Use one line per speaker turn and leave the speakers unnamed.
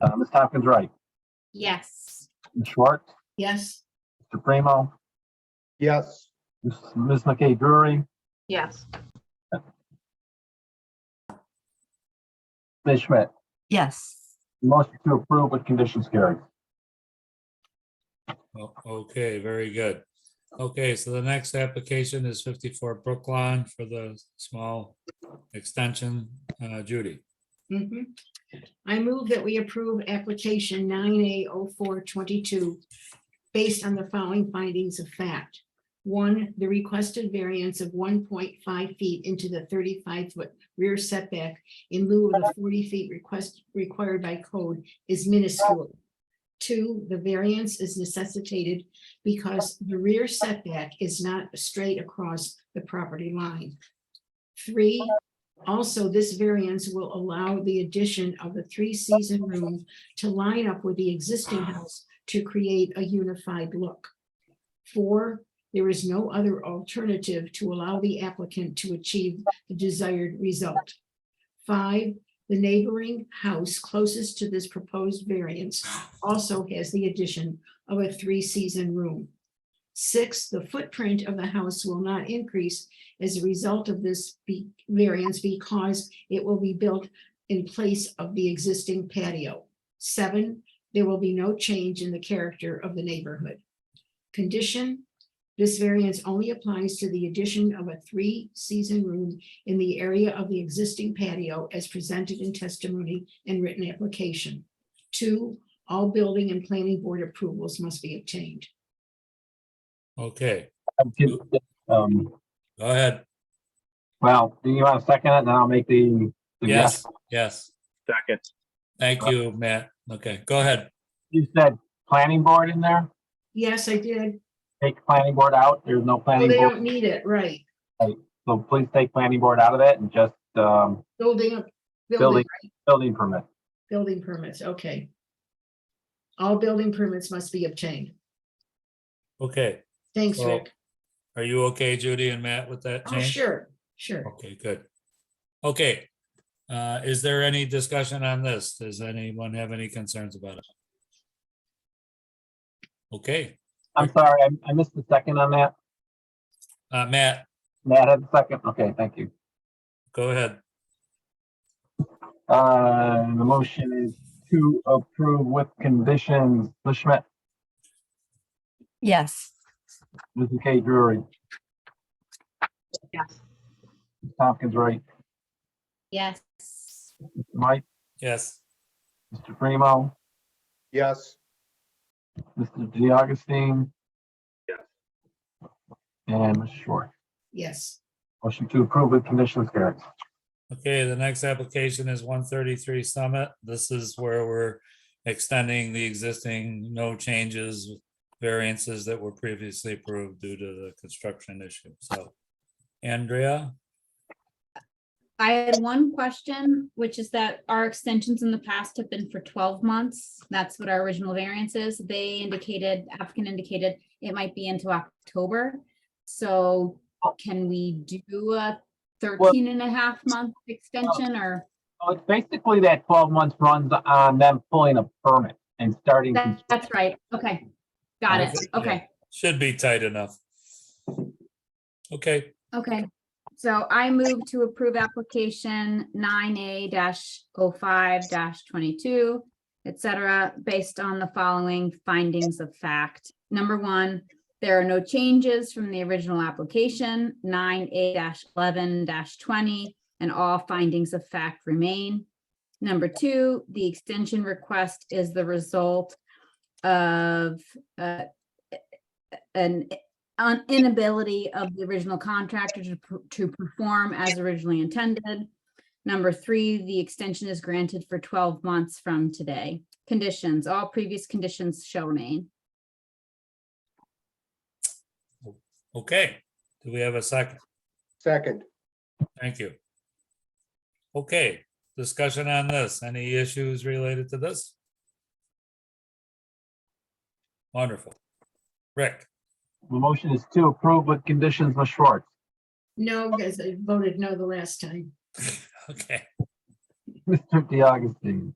Uh, Ms. Tompkins Wright,
Yes.
Ms. Schwartz,
Yes.
Mr. Primo,
Yes.
Ms. Ms. McKay Drury,
Yes.
Ms. Schmidt.
Yes.
Motion to approve with conditions carried.
O- Okay, very good. Okay, so the next application is fifty-four Brookline for the small extension. Uh, Judy,
Mhm. I move that we approve application nine A oh four twenty-two based on the following findings of fact. One, the requested variance of one point five feet into the thirty-five foot rear setback in lieu of the forty feet request required by code is minuscule. Two, the variance is necessitated because the rear setback is not straight across the property line. Three, also, this variance will allow the addition of a three-season room to line up with the existing house to create a unified look. Four, there is no other alternative to allow the applicant to achieve the desired result. Five, the neighboring house closest to this proposed variance also has the addition of a three-season room. Six, the footprint of the house will not increase as a result of this be- variance because it will be built in place of the existing patio. Seven, there will be no change in the character of the neighborhood. Condition, this variance only applies to the addition of a three-season room in the area of the existing patio as presented in testimony and written application. Two, all building and planning board approvals must be obtained.
okay,
Um,
go ahead.
well, do you want to second it and I'll make the?
Yes, yes.
Second.
Thank you, Matt. Okay, go ahead.
You said planning board in there?
Yes, I did.
Take planning board out. There's no
Well,
planning
they
board.
don't need it, right?
So please take planning board out of it and just, um,
Building, building
building, building permit.
Building permits, okay. All building permits must be obtained.
Okay,
Thanks,
Well,
Rick.
are you okay, Judy and Matt, with that
Oh,
change?
sure, sure.
Okay, good. Okay, uh, is there any discussion on this? Does anyone have any concerns about it? Okay,
I'm sorry, I, I missed the second on that.
uh, Matt,
Matt had the second. Okay, thank you.
go ahead.
Uh, the motion is to approve with conditions. Ms. Schmidt,
Yes.
Ms. McKay Drury,
Yes.
Ms. Tompkins Wright,
Yes.
Mike,
Yes,
Mr. Primo,
Yes.
Mr. DeAugustine.
Yes.
And Ms. Short.
Yes,
Motion to approve with conditions, carries.
okay, the next application is one thirty-three Summit. This is where we're extending the existing no changes variances that were previously approved due to the construction issue, so. Andrea?
I had one question, which is that our extensions in the past have been for twelve months. That's what our original variance is. They indicated, applicant indicated it might be into October. So can we do a 13 and a half month extension or
So it's basically that twelve months runs on them pulling a permit and starting.
that- that's right? Okay. Got it. Okay.
Should be tight enough. Okay,
Okay. So I move to approve application nine A 5 twenty-two, et cetera, based on the following findings of fact. Number one, there are no changes from the original application, nine A eleven twenty, and all findings of fact remain. Number two, the extension request is the result of uh, an an inability of the original contractor to, per- to perform as originally intended. Number three, the extension is granted for twelve months from today. Conditions, all previous conditions shall remain.
okay. Do we have a second?
Second.
Thank you. Okay, discussion on this. Any issues related to this? Wonderful. Rick,
The motion is to approve with conditions, Ms. Schwartz,
no, because I voted no the last time.
okay,
Mr. DeAugustine,